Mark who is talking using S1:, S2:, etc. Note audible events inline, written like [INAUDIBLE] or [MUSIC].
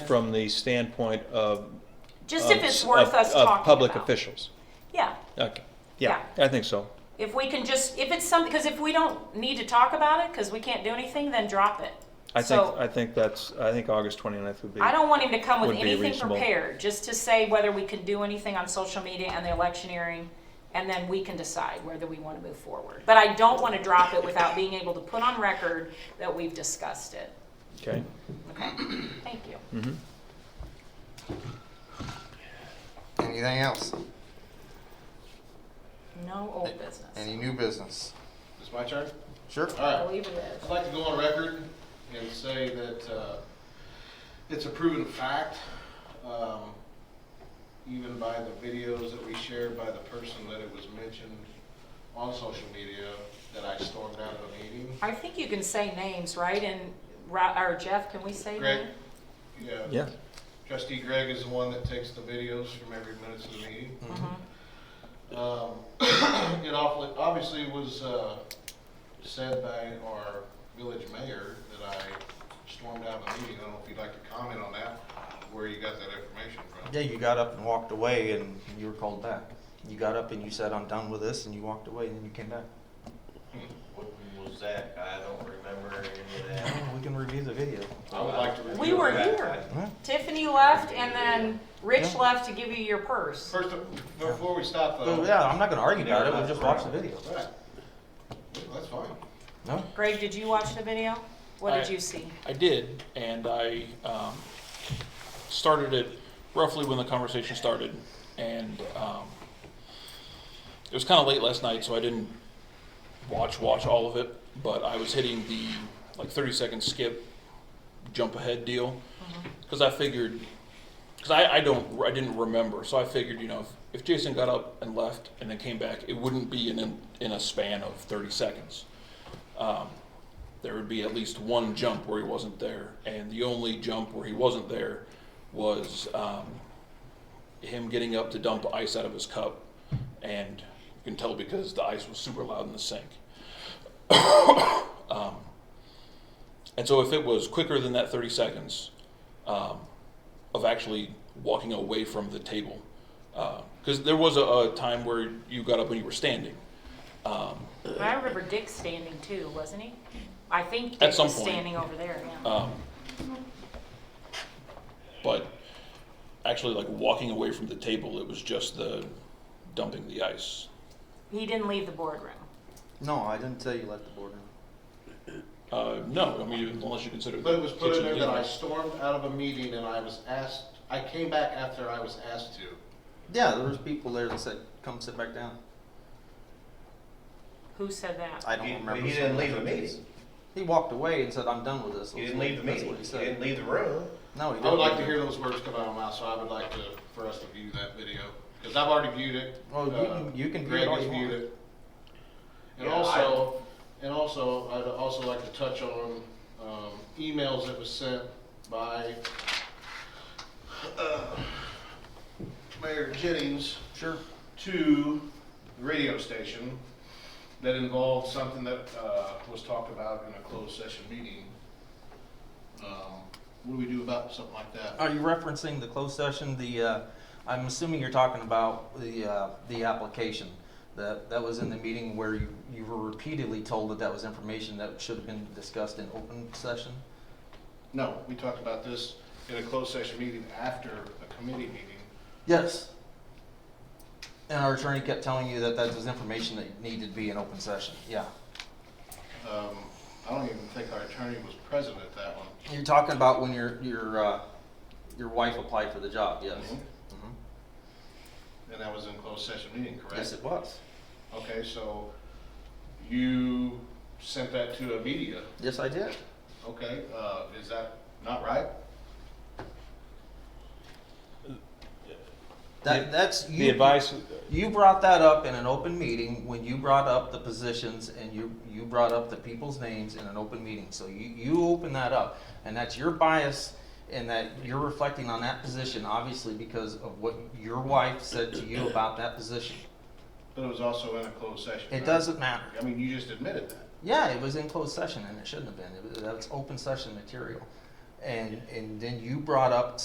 S1: from the standpoint of.
S2: Just
S1: of
S2: if
S1: s-
S2: it's worth
S1: of-
S2: us talking
S1: Of public
S2: about.
S1: officials.
S2: Yeah,
S1: Okay, yeah, I think so.
S2: if we can just, if it's some, because if we don't need to talk about it, because we can't do anything, then drop it.
S1: I think,
S2: So-
S1: I think that's, I think August 29th would be.
S2: I don't want him to come with
S1: Would be
S2: anything
S1: reasonable.
S2: prepared, just to say whether we can do anything on social media and the electioneering, and then we can decide whether we want to move forward. But I don't want to drop it without being able to put on record that we've discussed it.
S1: Okay. Mm-hmm.
S2: Okay, thank you.
S3: Anything else?
S2: No old business.
S3: Any new business?
S4: It's my turn?
S3: Sure.
S4: All
S2: I
S4: right.
S2: believe it is.
S4: I'd like to go on record and say that uh, it's a proven fact, um, even by the videos that we shared by the person that it was mentioned on social media, that I stormed out of a meeting.
S2: I think you can say names, right? And, Ra- or Jeff, can we say
S4: Greg,
S2: names?
S1: Yeah,
S4: Trustee Greg is the one that takes the videos from every minutes of the meeting.
S2: Mm-hmm.
S4: Um, [COUGHS] It awfully, obviously was uh, said by our village mayor that I stormed out of the meeting. I don't know if you'd like to comment on that, where you got that information from.
S3: Yeah, you got up and walked away, and you were called back. You got up and you said, "I'm done with this," and you walked away, and then you came back.
S5: What was that? I don't remember any of
S3: Oh,
S5: that.
S3: we can review the video.
S4: I would like to
S2: We
S4: review.
S2: were
S4: that.
S2: here. Tiffany left and then Rich left to give you your purse.
S4: First, of- before we stop though.
S3: But yeah, I'm not gonna argue about it. We'll just watch the video.
S4: Right. That's fine.
S3: No.
S2: Greg, did you watch the video? What did
S6: I-
S2: you see?
S6: I did, and I um, started it roughly when the conversation started, and um, it was kind of late last night, so I didn't watch watch all of it. But I was hitting the like thirty second skip, jump ahead deal, because I figured, because I, I don't I didn't remember, so I figured you know if, if Jason got up and left and then came back, it wouldn't be in in, in a span of thirty seconds Um, there would be at least one jump where he wasn't there. And the only jump where he wasn't there was um, him getting up to dump ice out of his cup. And you can tell because the ice was super loud in the sink. [COUGHS] um, and so if it was quicker than that 30 seconds um, of actually walking away from the table, because there was a, a time where you got up and you were standing. Um,
S2: I remember Dick standing too, wasn't he? I think
S6: At
S2: Dick
S6: some
S2: was
S6: point.
S2: standing over there, yeah.
S6: Um, but actually, like walking away from the table, it was just the dumping the ice.
S2: He didn't leave the boardroom.
S3: No, I didn't tell you left the boardroom.
S6: Uh, no, I mean unless you consider.
S4: But it was put in
S6: kitchen
S4: there that I
S6: leaving.
S4: stormed out of a meeting and I was asked, I came back after I was asked to.
S3: Yeah, there was people there that said, "Come sit back down."
S2: Who said that?
S3: I don't
S5: He-
S3: remember.
S5: He
S3: saying
S5: didn't leave the
S3: that.
S5: meeting.
S3: He walked away and said, "I'm done with this."
S5: He didn't leave the
S3: That's
S5: meeting.
S3: what
S5: He
S3: he said.
S5: didn't leave the room.
S3: No, he didn't.
S4: I would like to hear those words come out of my mouth, so I would like to, for us to view that video, because I've already viewed it.
S3: Well, you
S4: Uh,
S3: can- you can view
S4: Greg
S3: it all
S4: has
S3: you
S4: viewed
S3: want.
S4: it. And
S5: Yeah,
S4: also, and also, I'd also like to touch on, um, emails that was sent by, uh, Mayor Jennings
S3: Sure.
S4: to the radio station that involved something that, uh, was talked about in a closed session meeting. Um, what do we do about something like that?
S3: Are you referencing the closed session, the, uh, I'm assuming you're talking about the, uh, the application? That, that was in the meeting where you, you were repeatedly told that that was information that should have been discussed in open session?
S4: No, we talked about this in a closed session meeting after a committee meeting.
S3: Yes. And our attorney kept telling you that that was information that needed to be in open session, yeah.
S4: Um, I don't even think our attorney was present at that one.
S3: You're talking about when your, your, uh, your wife applied for the job, yes?
S4: Mhm.
S3: Mhm.
S4: And that was in closed session meeting, correct?
S3: Yes, it was.
S4: Okay, so you sent that to a media,
S3: Yes, I did.
S4: okay, uh, is that not right?
S3: That, that's.
S1: the
S3: you-
S1: advice,
S3: You brought that up in an open meeting when you brought up the positions and you, you brought up the people's names in an open meeting. So you, you opened that up and that's your bias and that you're reflecting on that position, obviously because of what your wife said to you about that position.
S4: But it was also in a closed session.
S3: It
S4: right?
S3: doesn't matter.
S4: I mean, you just admitted that.
S3: Yeah, it was in closed session and it shouldn't have been. It was, that's open session material. And, and then you brought up